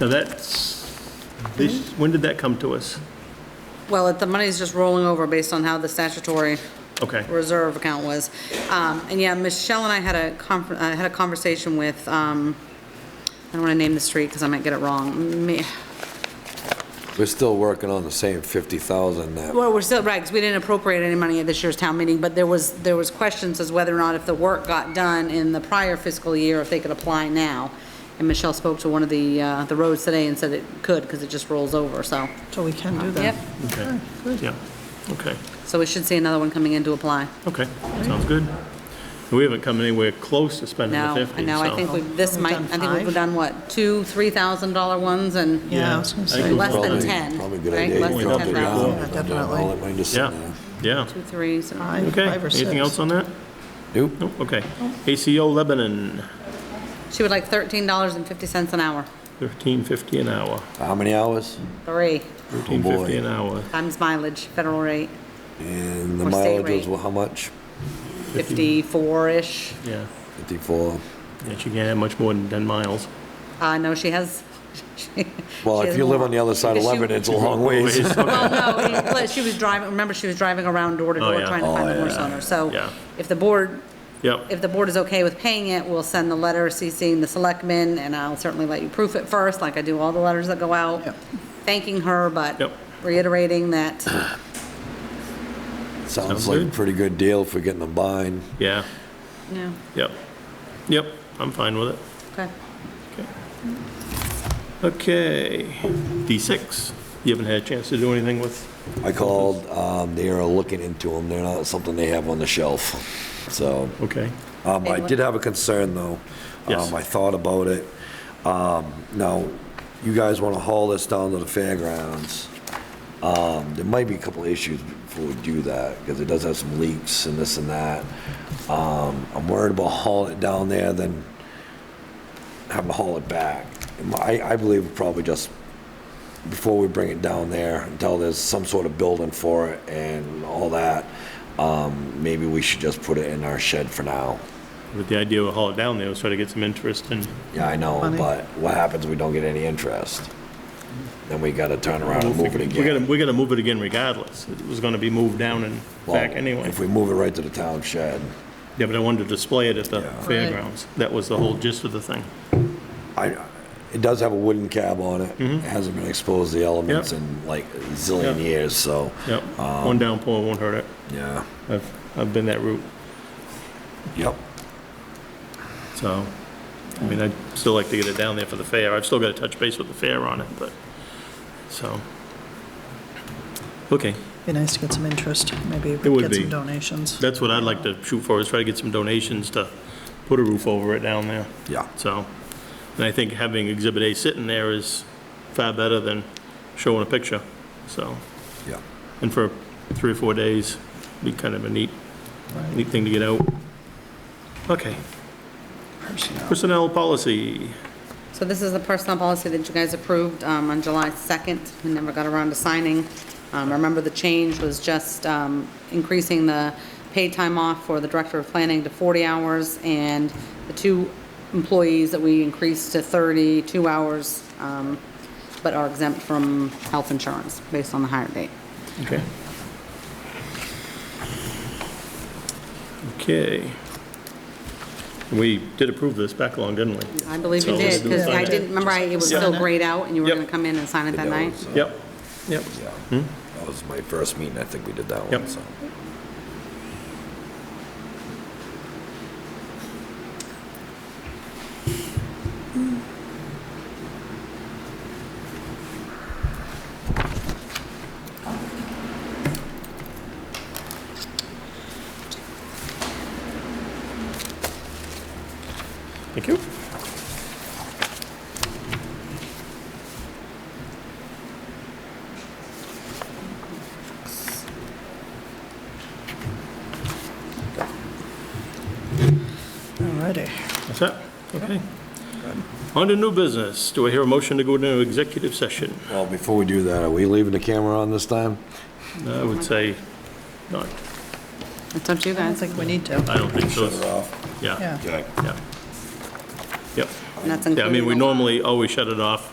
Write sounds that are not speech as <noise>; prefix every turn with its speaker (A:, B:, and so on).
A: Now that's, this, when did that come to us?
B: Well, if the money's just rolling over based on how the statutory
A: Okay,
B: reserve account was. Um, And yeah, Michelle and I had a, conf- I had a conversation with, um, I don't want to name the street because I might get it wrong. Me-
C: We're still working on the same 50,000 that,
B: Well, we're still, right, because we didn't appropriate any money at this year's town meeting, but there was, there was questions as whether or not if the work got done in the prior fiscal year, if they could apply now. And Michelle spoke to one of the, uh, the roads today and said it could because it just rolls over, so.
D: So we can do that.
B: Yep,
A: okay,
B: Ah,
A: yeah, okay,
B: so we should see another one coming in to apply.
A: okay, sounds good. We haven't come anywhere close to spending the
B: No, I
A: fifty,
B: know, I
A: so-
B: think we've, this
D: We've
B: might,
D: done
B: I think we've
D: five.
B: done what, two, $3,000 ones and
D: Yeah, I was gonna
A: I
D: say.
A: think
B: Less than
C: probably,
B: 10,
C: probably a good
B: right?
C: idea.
B: Less
A: than 10,000.
D: Yeah,
C: All that
D: definitely.
C: money just sitting
A: Yeah,
C: there.
A: yeah,
B: two threes. and-
D: Five,
A: okay,
D: five or six.
A: anything else on that?
C: Nope.
A: Nope, okay.
B: Oh.
A: ACO Lebanon,
B: She would like $13.50 an hour,
A: thirteen fifty an hour,
C: How many hours?
B: three,
A: thirteen fifty an hour,
B: times mileage, federal rate,
C: And the
B: Or state
C: mileage was,
B: rate.
C: well, how much?
B: 54-ish.
A: yeah.
C: 54.
A: Yeah, she can't have much more than ten miles.
B: Uh, no, she has. <laughs> she-
C: Well,
B: she
C: if
B: has
C: you live
B: more.
C: on the other side of
B: Because she-
C: Lebanon, it's a
A: <laughs>
C: long ways.
B: Well, no, he- but she was driving, remember, she was driving around door to
A: Oh,
B: door
A: yeah.
B: trying to find a horse owner. So
A: Yeah.
B: if the board,
A: Yep,
B: if the board is okay with paying it, we'll send the letter CCing the selectmen, and I'll certainly let you proof it first, like I do all the letters that go out,
D: Yep.
B: thanking her, but
A: Yep.
B: reiterating that,
C: Sounds
A: Sounds
C: like a
A: good.
C: pretty good deal for getting them buying.
A: yeah,
B: you know,
A: yep, yep, I'm fine with it.
B: okay.
A: Okay, D6, you haven't had a chance to do anything with,
C: I called, um, they are looking into them. They're not something they have on the shelf. So,
A: okay,
C: um, I
B: Anyone?
C: did have a concern though.
A: Yes.
C: Um, I thought about it. Um, now, you guys want to haul this down to the fairgrounds. Um, there might be a couple of issues before we do that because it does have some leaks and this and that. Um, I'm worried about hauling it down there, then having to haul it back. And I, I believe we probably just before we bring it down there, until there's some sort of building for it and all that, um, maybe we should just put it in our shed for now.
A: with the idea of haul it down there, was try to get some interest and
C: Yeah, I know,
D: Money.
C: but what happens if we don't get any interest? Then we gotta turn around and move it
A: We gotta,
C: again.
A: we gotta move it again regardless, it was gonna be moved down and
C: Well,
A: back anyway.
C: If we move it right to the town shed,
A: Yeah, but I wanted to display it at the
C: Yeah.
A: fairgrounds, that was the whole gist of the thing.
C: I, it does have a wooden cab on it. It hasn't been exposed to the elements
A: Mm-hmm. Yep.
C: in like a
A: Yep.
C: zillion years, so,
A: Yep,
C: Um,
A: one downpour won't hurt it,
C: yeah,
A: I've, I've been that route,
C: yep.
A: so, I mean, I'd still like to get it down there for the fair, I've still gotta touch base with the fair on it, but, so. Okay,
D: Be nice to get some interest, maybe
A: It would
D: get
A: be.
D: some donations.
A: That's what I'd like to shoot for, is try to get some donations to put a roof over it down there.
C: Yeah.
A: So, and I think having Exhibit A sitting there is far better than showing a picture, so.
C: Yeah.
A: And for three or four days, be kind of a neat, neat thing to get out. Okay,
D: Personnel.
A: personnel policy,
B: So this is the personnel policy that you guys approved um, on July 2nd, we never got around to signing. Um, Remember, the change was just um, increasing the paid time off for the Director of Planning to 40 hours, and the two employees that we increased to 32 hours, um, but are exempt from health insurance based on the hire date.
A: okay. Okay. We did approve this back along, didn't we?
B: I believe
A: So
B: you
A: let's
B: did,
A: do
B: because
A: that.
B: I didn't, remember, I- it was
D: Sign
B: still
D: it.
B: grayed out, and you were
A: Yep.
B: going to come in and sign it that night?
C: So,
A: Yep, yep.
C: uh, Yeah. That was my first meeting, I think we did that one,
A: Yep.
C: so.
A: Thank you.
D: Alrighty.
A: That's it? Okay. On to new business. Do I hear a motion to go into executive session?
C: Well, before we do that, are we leaving the camera on this time?
A: I would say not.
B: That's up to you
D: I don't
B: guys,
D: think we need to.
A: I don't think so. Yeah,
D: Yeah.
C: Okay.
A: yeah. Yep.
B: and that's
A: Yeah, I mean,
B: including
A: we
B: the-
A: normally always shut it off